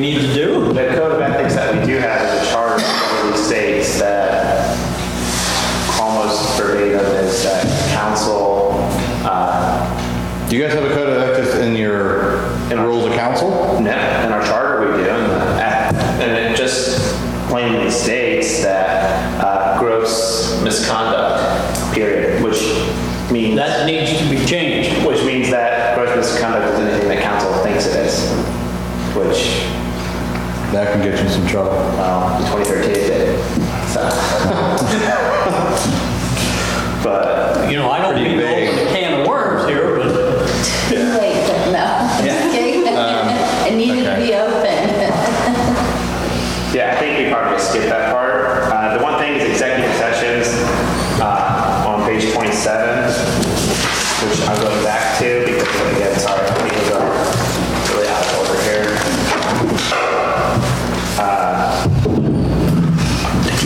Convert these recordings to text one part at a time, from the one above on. need to do. The code of ethics that we do have is a charter that really states that almost verbatim is that council, uh, Do you guys have a code of ethics in your In our- rules of council? no, in our charter we do, and the- and it just plainly states that uh, gross misconduct, period, which means, That needs to be changed. which means that gross misconduct is anything that council thinks it is, which, That can get you in some trouble. well, in 2013 it did, so. But You know, I don't mean to Pretty open a can of worms here, but Too late, but no. I'm just kidding. It needed to okay. be open. Yeah, I think we probably skipped that part. Uh, The one thing is executive sessions uh, on page 27, which I'm going back to because, again, sorry, these are really out of order here. Uh, Did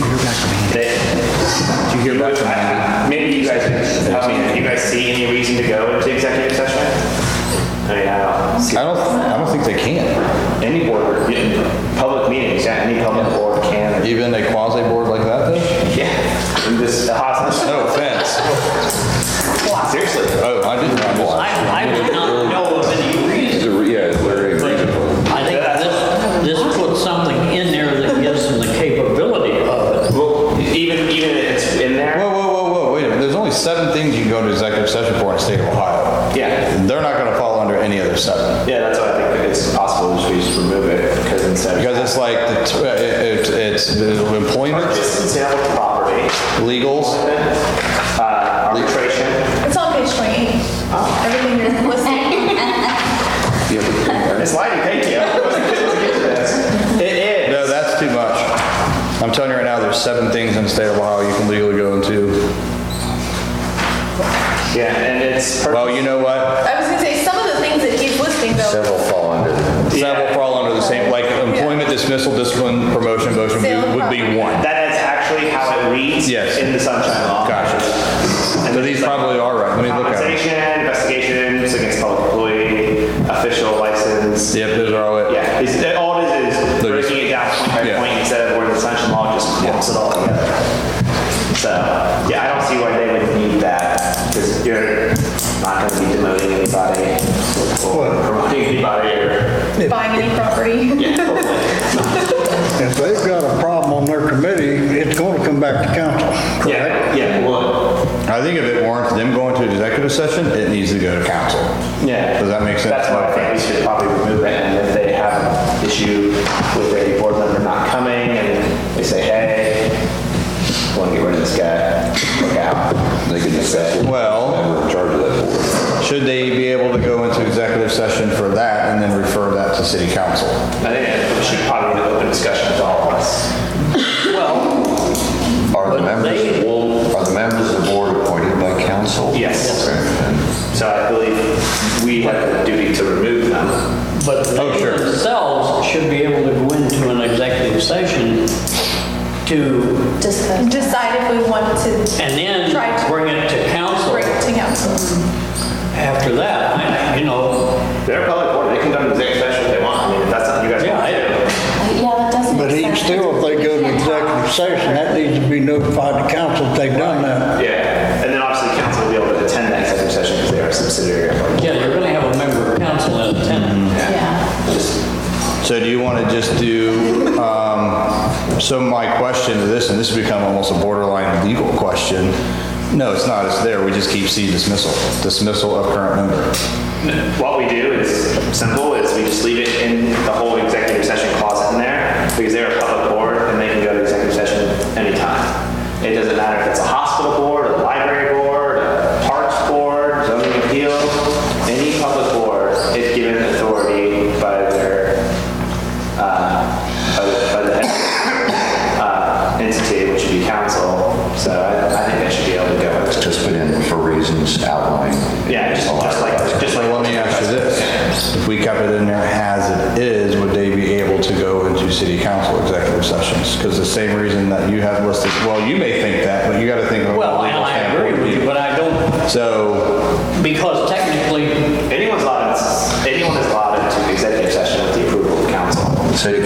you hear back from Andy? Maybe you guys can help me. Do you guys see any reason to go into executive session? I mean, I don't see I don't, I don't think they can. any board, public meetings, yeah, any public board can. Even a quasi board like that though? Yeah, and this the hostage. No offense. Seriously. Oh, I didn't realize. I, I do not know of any reason. Yeah, it's very But reasonable. I think this, this puts something in there that gives them the capability of it. Well, even even if it's in Whoa, there. whoa, whoa, whoa, wait a minute. There's only seven things you can go to executive session for in the state of Ohio. Yeah. They're not gonna fall under any of those seven. Yeah, that's what I think. It's possible we should just remove it because instead Because it's like, the t- it- it- it's the employment, disincentive property, legals, uh, arbitration. It's on page 28. Everything you're listing. It's lighting. Thank you. I wasn't get to this. It is. No, that's too much. I'm telling you right now, there's seven things in the state of Ohio you can legally go into. Yeah, and it's. Well, you know what? I was gonna say, some of the things that he's listing though, Several fall under. Several fall under the same, like employment dismissal, discipline, promotion, motion would would be one. That is actually how it reads. Yes. In the sunshine law. Gotcha. And So then these it's like- probably are right. Let me look at them. Compensation, investigations against public employee, official license. Yep, those are all it. Yeah, it's, it- all it is is They're just- breaking it down point by Yeah. point instead of where the sunshine law just clumps it all together. So, yeah, I don't see why they would need that because you're not going to be demoting anybody or promoting anybody or. buying any property. If they've got a problem on their committee, it's going to come back to council. Yeah, yeah, well, I think if it warrants them going to executive session, it needs to go to council. yeah. Does that make sense? That's why I think we should probably remove it and if they have an issue with a board member not coming and they say, hey, want to get rid of this guy, look out. They can discuss it. Well, Whoever in charge of that board. should they be able to go into executive session for that and then refer that to city council? I think it should probably be an open discussion with all of us. Well, Are the members, are the members of the board appointed by council? Yes. Okay. So I believe we have the duty to remove them. but Oh, they sure. themselves should be able to go into an executive session to, Just the- Decide if we want to and Try then to- bring it to council break to council. after that. I- You know, They're a public board, they can go to executive session if they want, I mean, if that's something you guys yeah, want to do. I- Yeah, that doesn't. But make even sense. still, if they go to executive session, that needs to be notified to council if they've done that. Yeah, and then obviously council will be able to attend that executive session because they are a subsidiary of our board. yeah, you're going to have a member of council in attendance. Yeah. So do you want to just do, um, so my question to this, and this has become almost a borderline legal question. No, it's not, it's there, we just keep C dismissal, dismissal of current member. What we do is simple, is we just leave it in the whole executive session clause in there because they're a public board and they can go to executive session anytime. It doesn't matter if it's a hospital board, a library board, a parks board, zoning appeal, any public board is given authority by their, uh, by the- by the head, uh, entity, which would be council. So I I think they should be able to go into Just put in for reasons outlined. yeah, just just like, just like. Well, let me ask you this, if we kept it in there as it is, would they be able to go into city council executive sessions? Because the same reason that you have listed, well, you may think that, but you got to think of. a Well, and legal I agree with you, but standpoint. I don't, So, because technically, Anyone's allowed, anyone is allowed into executive session with the approval of council. City